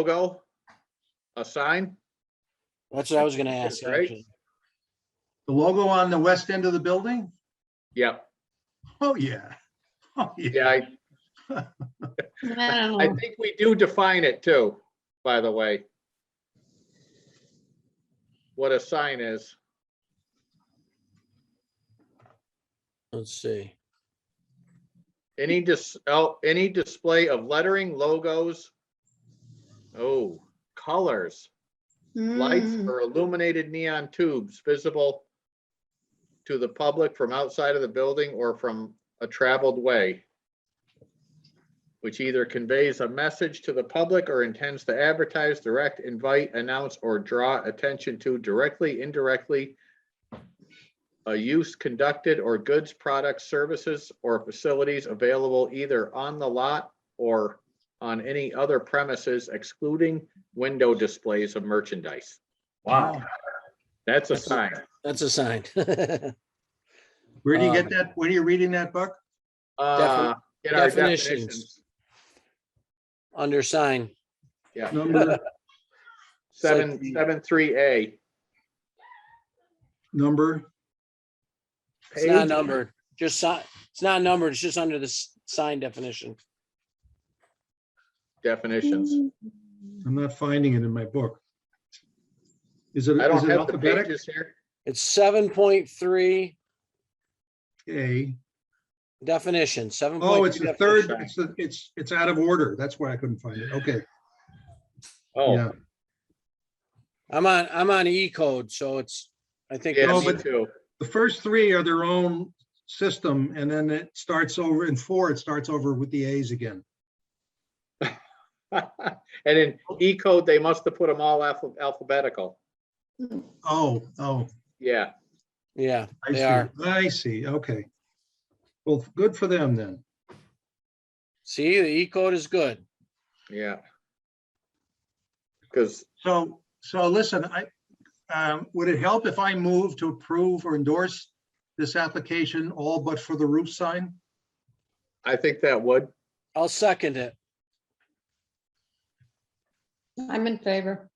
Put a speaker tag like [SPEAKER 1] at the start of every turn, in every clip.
[SPEAKER 1] logo? A sign?
[SPEAKER 2] That's what I was gonna ask,
[SPEAKER 1] Right?
[SPEAKER 2] actually.
[SPEAKER 3] The logo on the west end of the building?
[SPEAKER 1] Yeah,
[SPEAKER 3] Oh, yeah. Oh, yeah.
[SPEAKER 1] yeah, I,
[SPEAKER 4] I don't
[SPEAKER 1] I
[SPEAKER 4] know.
[SPEAKER 1] think we do define it too, by the way. What a sign is.
[SPEAKER 2] Let's see.
[SPEAKER 1] Any dis, oh, any display of lettering, logos. Oh, colors, lights
[SPEAKER 4] Mm.
[SPEAKER 1] or illuminated neon tubes visible to the public from outside of the building or from a traveled way. Which either conveys a message to the public or intends to advertise, direct, invite, announce, or draw attention to directly, indirectly, a use conducted or goods, products, services, or facilities available either on the lot or on any other premises excluding window displays of merchandise.
[SPEAKER 3] Wow.
[SPEAKER 1] That's a
[SPEAKER 2] That's a-
[SPEAKER 1] sign.
[SPEAKER 2] That's a sign.
[SPEAKER 3] Where do you
[SPEAKER 2] Um,
[SPEAKER 3] get that? Where are you reading that, Buck?
[SPEAKER 1] Uh, in our
[SPEAKER 2] definitions.
[SPEAKER 1] definitions,
[SPEAKER 2] Under sign.
[SPEAKER 1] yeah,
[SPEAKER 3] Number,
[SPEAKER 1] seven,
[SPEAKER 3] It's like the-
[SPEAKER 1] seven, three A.
[SPEAKER 3] number,
[SPEAKER 2] It's not numbered, just sign, it's not numbered, it's just under the s- sign definition.
[SPEAKER 1] Definitions.
[SPEAKER 3] I'm not finding it in my book. Is it,
[SPEAKER 1] I
[SPEAKER 3] is
[SPEAKER 1] don't
[SPEAKER 3] it
[SPEAKER 1] have the
[SPEAKER 3] alphabetic?
[SPEAKER 1] pages here.
[SPEAKER 2] It's seven point three
[SPEAKER 3] A,
[SPEAKER 2] definition, seven.
[SPEAKER 3] oh, it's the third,
[SPEAKER 1] definition.
[SPEAKER 3] it's, the- it's, it's out of order. That's why I couldn't find it. Okay,
[SPEAKER 1] Oh,
[SPEAKER 3] yeah.
[SPEAKER 2] I'm on, I'm on E code, so it's, I think,
[SPEAKER 1] yeah,
[SPEAKER 3] No,
[SPEAKER 1] me
[SPEAKER 3] but-
[SPEAKER 1] too.
[SPEAKER 3] The first three are their own system and then it starts over in four, it starts over with the A's again.
[SPEAKER 1] And in E code, they must have put them all alpha- alphabetical.
[SPEAKER 3] Oh, oh.
[SPEAKER 1] Yeah.
[SPEAKER 2] yeah,
[SPEAKER 3] I
[SPEAKER 2] They
[SPEAKER 3] see.
[SPEAKER 2] are.
[SPEAKER 3] I see, okay. Well, good for them then.
[SPEAKER 2] see, the E code is good.
[SPEAKER 1] Yeah. Because,
[SPEAKER 3] So, so listen, I, um, would it help if I move to approve or endorse this application all but for the roof sign?
[SPEAKER 1] I think that would,
[SPEAKER 2] I'll second it.
[SPEAKER 4] I'm in favor.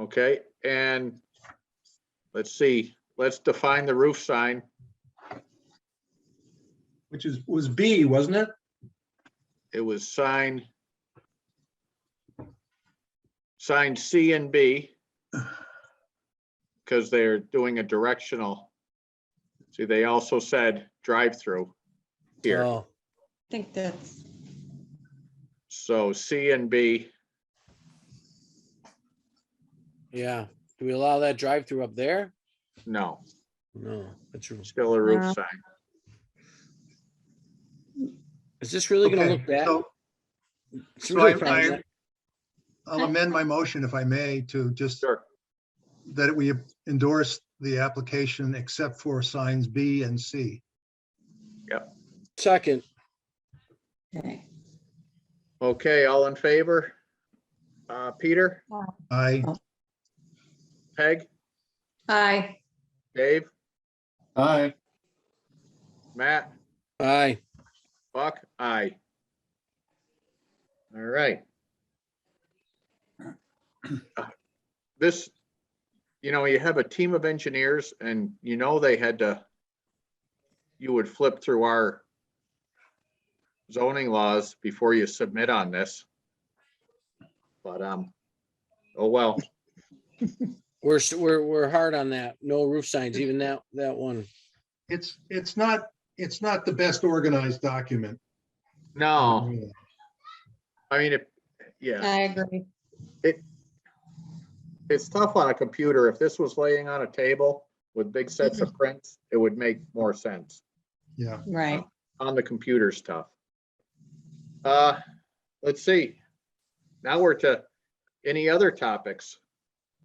[SPEAKER 1] okay, and let's see, let's define the roof sign.
[SPEAKER 3] Which is, was B, wasn't it?
[SPEAKER 1] It was sign sign C and B because they're doing a directional. See, they also said drive-through here,
[SPEAKER 2] Oh,
[SPEAKER 4] I think that's,
[SPEAKER 1] so C and B,
[SPEAKER 2] yeah. Do we allow that drive-through up there?
[SPEAKER 1] no,
[SPEAKER 2] No, it's,
[SPEAKER 1] still a roof
[SPEAKER 4] No.
[SPEAKER 1] sign.
[SPEAKER 2] is this really gonna look
[SPEAKER 3] Okay,
[SPEAKER 2] bad?
[SPEAKER 3] so-
[SPEAKER 2] It's
[SPEAKER 3] so
[SPEAKER 2] really
[SPEAKER 3] I-
[SPEAKER 2] probably
[SPEAKER 3] I-
[SPEAKER 2] not.
[SPEAKER 3] I'll amend my motion if I may to just
[SPEAKER 1] Sure.
[SPEAKER 3] that we endorse the application except for signs B and C.
[SPEAKER 2] Second,
[SPEAKER 4] okay.
[SPEAKER 1] Okay, all in favor? Uh, Peter,
[SPEAKER 3] I,
[SPEAKER 1] Peg,
[SPEAKER 4] Aye.
[SPEAKER 1] Dave,
[SPEAKER 5] Aye,
[SPEAKER 1] Matt?
[SPEAKER 2] aye.
[SPEAKER 1] Buck, aye. All right. Uh, This, you know, you have a team of engineers and you know they had to, you would flip through our zoning laws before you submit on this. But, um, oh, well,
[SPEAKER 2] We're, s- we're, we're hard on that. No roof signs, even that, that one.
[SPEAKER 3] it's, it's not, it's not the best organized document.
[SPEAKER 1] no, I mean, if, yeah,
[SPEAKER 4] I agree.
[SPEAKER 1] it's tough on a computer. If this was laying on a table with big sets of prints, it would make more sense.
[SPEAKER 3] Yeah.
[SPEAKER 4] Right.
[SPEAKER 1] on the computer stuff. Uh, let's see. Now we're to any other topics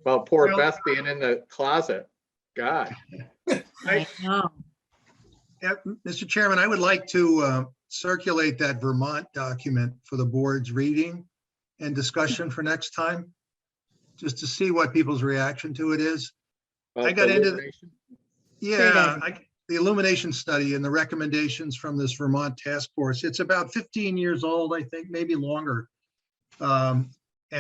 [SPEAKER 1] about poor
[SPEAKER 3] Well-
[SPEAKER 1] Beth being in the closet. God,
[SPEAKER 3] I-
[SPEAKER 4] I know.
[SPEAKER 3] Yeah, m- Mr. Chairman, I would like to uh, circulate that Vermont document for the board's reading and discussion for next time, just to see what people's reaction to it is.
[SPEAKER 1] about
[SPEAKER 3] I got
[SPEAKER 1] the
[SPEAKER 3] into the-
[SPEAKER 1] illumination.
[SPEAKER 3] Yeah, I- the illumination study and the recommendations from this Vermont task force, it's about 15 years old, I think, maybe longer. Um,